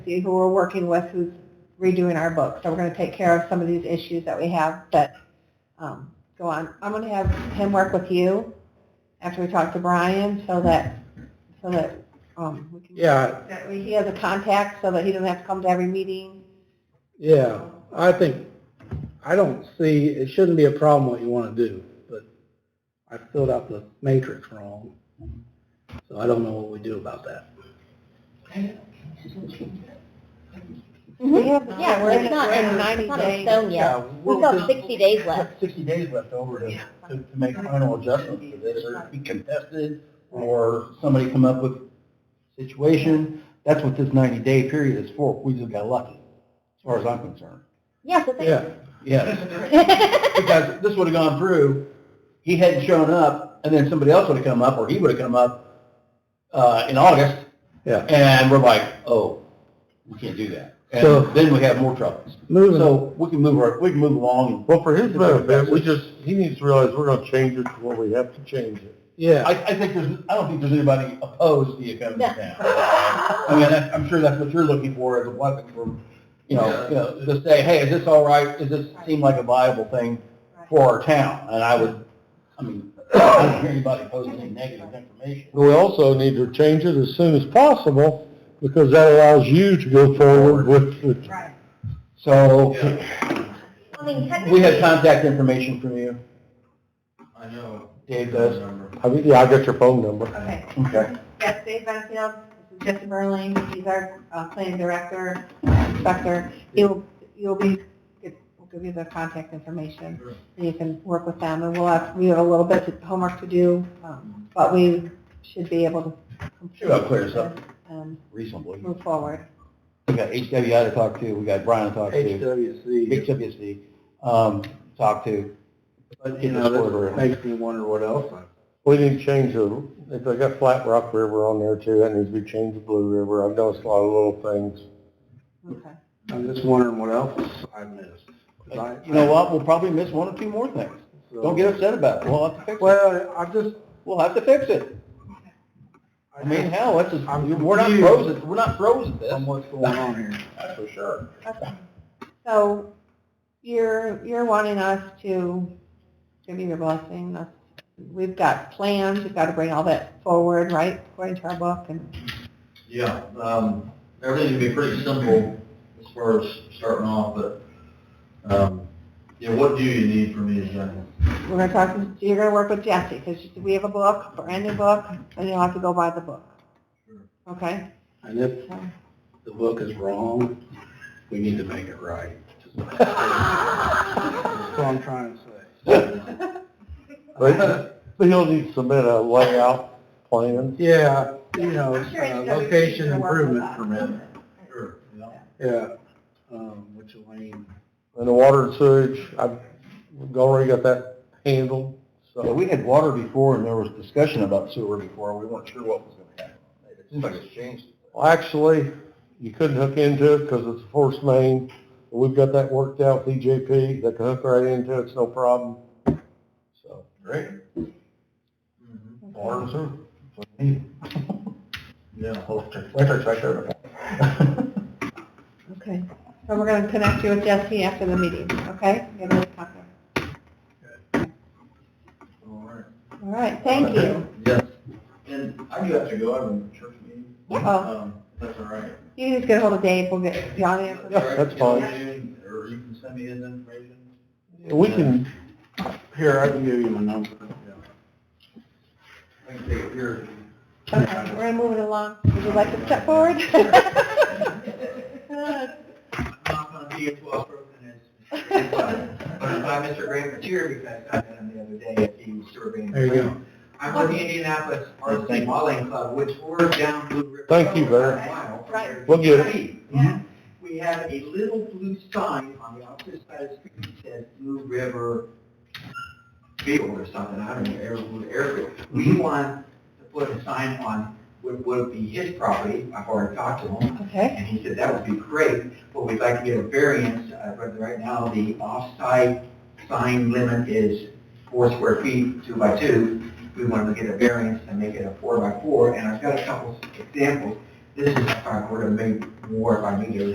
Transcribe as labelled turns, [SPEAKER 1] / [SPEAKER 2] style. [SPEAKER 1] who we're working with who's redoing our book. So we're going to take care of some of these issues that we have that um, go on. I'm going to have him work with you after we talk to Brian so that, so that um, we can,
[SPEAKER 2] Yeah,
[SPEAKER 1] that we- he has a contact so that he doesn't have to come to every meeting.
[SPEAKER 2] yeah, I think, I don't see, it shouldn't be a problem what you want to do, but I filled out the matrix wrong, so I don't know what we do about that.
[SPEAKER 1] We have-
[SPEAKER 3] Mm-hmm. Yeah,
[SPEAKER 1] we're in-
[SPEAKER 3] it's not,
[SPEAKER 1] we're in
[SPEAKER 3] it's
[SPEAKER 1] 90
[SPEAKER 3] not in
[SPEAKER 1] days.
[SPEAKER 3] stone yet. We've got sixty days
[SPEAKER 4] We
[SPEAKER 3] left.
[SPEAKER 4] have Sixty days left over to, to to make final adjustments to this, or be contested, or somebody come up with a situation. That's what this ninety-day period is for. We just got lucky, as far as I'm concerned.
[SPEAKER 3] Yeah, so
[SPEAKER 2] Yeah,
[SPEAKER 3] thank
[SPEAKER 4] Yes,
[SPEAKER 3] you.
[SPEAKER 4] because this would've gone through, he hadn't shown up, and then somebody else would've come up, or he would've come up, uh, in August,
[SPEAKER 2] yeah.
[SPEAKER 4] and we're like, oh, we can't do that.
[SPEAKER 2] So-
[SPEAKER 4] And then we have more troubles.
[SPEAKER 2] Moving,
[SPEAKER 4] So we can move, our- we can move along and
[SPEAKER 5] Well, for his benefit, we just, he needs to realize we're gonna change it to what we have to change it.
[SPEAKER 2] yeah,
[SPEAKER 4] I, I think there's, I don't think there's anybody opposed to the
[SPEAKER 3] No.
[SPEAKER 4] Academy now. I mean, that's- I'm sure that's what you're looking for as a weapon for, you know, you know, to say, hey, is this all right? Does this seem like a viable thing for our town? And I would, I mean, I don't hear anybody opposing any negative information.
[SPEAKER 5] But we also need to change it as soon as possible, because that allows you to go forward with, with,
[SPEAKER 1] Right.
[SPEAKER 4] So
[SPEAKER 3] I mean,
[SPEAKER 4] we have
[SPEAKER 3] technically,
[SPEAKER 4] contact information from you,
[SPEAKER 6] I know.
[SPEAKER 4] Dave does.
[SPEAKER 5] I mean, yeah, I got your phone number.
[SPEAKER 1] Okay.
[SPEAKER 4] Okay.
[SPEAKER 1] Yes, Dave Benfield, this is Jesse Merling, he's our uh, planning director, inspector. He'll, you'll be, we'll give you the contact information, and you can work with them, and we'll have, we have a little bit of homework to do, um, but we should be able to complete
[SPEAKER 4] Sure, I'll clear this up
[SPEAKER 1] and
[SPEAKER 4] reasonably.
[SPEAKER 1] move forward.
[SPEAKER 4] We got HWI to talk to, we got Brian to talk to,
[SPEAKER 2] HWC,
[SPEAKER 4] HWC, um, talk to.
[SPEAKER 2] but you know, that makes me wonder what else. I-
[SPEAKER 5] We need to change the, if they got Flat Rock River on there too, that needs to be changed to Blue River. I've noticed a lot of little things.
[SPEAKER 1] Okay.
[SPEAKER 2] I'm just wondering what else I missed. 'Cause I-
[SPEAKER 4] You know what, we'll probably miss one or two more things.
[SPEAKER 2] so-
[SPEAKER 4] Don't get upset about it. We'll have to fix it.
[SPEAKER 2] Well, I just,
[SPEAKER 4] We'll have to fix it. I mean, hell, that's just,
[SPEAKER 2] I'm
[SPEAKER 4] we're not
[SPEAKER 2] confused.
[SPEAKER 4] frozen. We're not frozen. This.
[SPEAKER 2] on what's going on here.
[SPEAKER 4] That's for sure.
[SPEAKER 1] Okay. So you're, you're wanting us to give you your blessing. That's- We've got plans, we've got to bring all that forward, right, according to our book, and,
[SPEAKER 6] Yeah, um, everything would be pretty simple as far as starting off, but, um, you know, what do you need from me exactly?
[SPEAKER 1] We're gonna talk, to- you're gonna work with Jesse, because we have a book, a brand new book, and you'll have to go by the book. Okay?
[SPEAKER 2] And if
[SPEAKER 1] So,
[SPEAKER 2] the book is wrong, we need to make it right. That's what I'm trying to say.
[SPEAKER 5] But, but he'll need to submit a layout plan.
[SPEAKER 2] Yeah, you know,
[SPEAKER 1] I'm sure
[SPEAKER 2] uh,
[SPEAKER 1] HWC
[SPEAKER 2] location
[SPEAKER 1] can work
[SPEAKER 2] improvement
[SPEAKER 1] with us.
[SPEAKER 2] permit,
[SPEAKER 6] Sure, yeah.
[SPEAKER 2] yeah, um, which Elaine,
[SPEAKER 5] And the water and sewage, I've we've already got that handled, so.
[SPEAKER 4] Yeah, we had water before, and there was discussion about sewer before. We weren't sure what was going to happen. It seems like it's changed.
[SPEAKER 5] Well, actually, you couldn't hook into it because it's a force main. We've got that worked out with EJP. They can hook right into it. It's no problem. So, Mm-hmm.
[SPEAKER 4] Great.
[SPEAKER 6] Mhm.
[SPEAKER 4] Water and sewer.
[SPEAKER 6] Yeah.
[SPEAKER 4] Electric, electric's right there.
[SPEAKER 1] Okay. So we're gonna connect you with Jesse after the meeting, okay? Give her a copy.
[SPEAKER 6] All right.
[SPEAKER 1] All right, thank you.
[SPEAKER 6] Yes. And I do have to go, I have a church meeting.
[SPEAKER 1] Oh,
[SPEAKER 6] Um, if that's all right.
[SPEAKER 1] you just get hold of Dave, we'll get the audience.
[SPEAKER 5] Yeah, that's fine.
[SPEAKER 6] Or you can send me his information.
[SPEAKER 5] we can,
[SPEAKER 2] here, I can give you my number.
[SPEAKER 6] I can take it here.
[SPEAKER 1] Okay, we're gonna move it along. Would you like to step forward?
[SPEAKER 6] I'm not gonna be as well spoken as Mr. Graham, but if I Mr. Graham was here because I met him the other day at the sewer being.
[SPEAKER 2] There you go.
[SPEAKER 6] I'm with the Indianapolis RC Modeling Club, which we're down Blue River.
[SPEAKER 5] Thank you, Barry.
[SPEAKER 6] About a mile from
[SPEAKER 1] Right.
[SPEAKER 6] there.
[SPEAKER 5] We'll get
[SPEAKER 1] Yeah.
[SPEAKER 6] We have a little blue sign on the opposite side of the street that says Blue River Field or something, I don't know, Air- Blue Airfield.
[SPEAKER 4] Mm-hmm.
[SPEAKER 6] We want to put a sign on what would be his property, I've already talked to him,
[SPEAKER 1] Okay,
[SPEAKER 6] and he said, that would be great, but we'd like to get a variance, uh, but right now, the off-site sign limit is four square feet, two by two. We wanted to get a variance and make it a four by four, and I've got a couple examples. This this is, if I were to make more, if I need to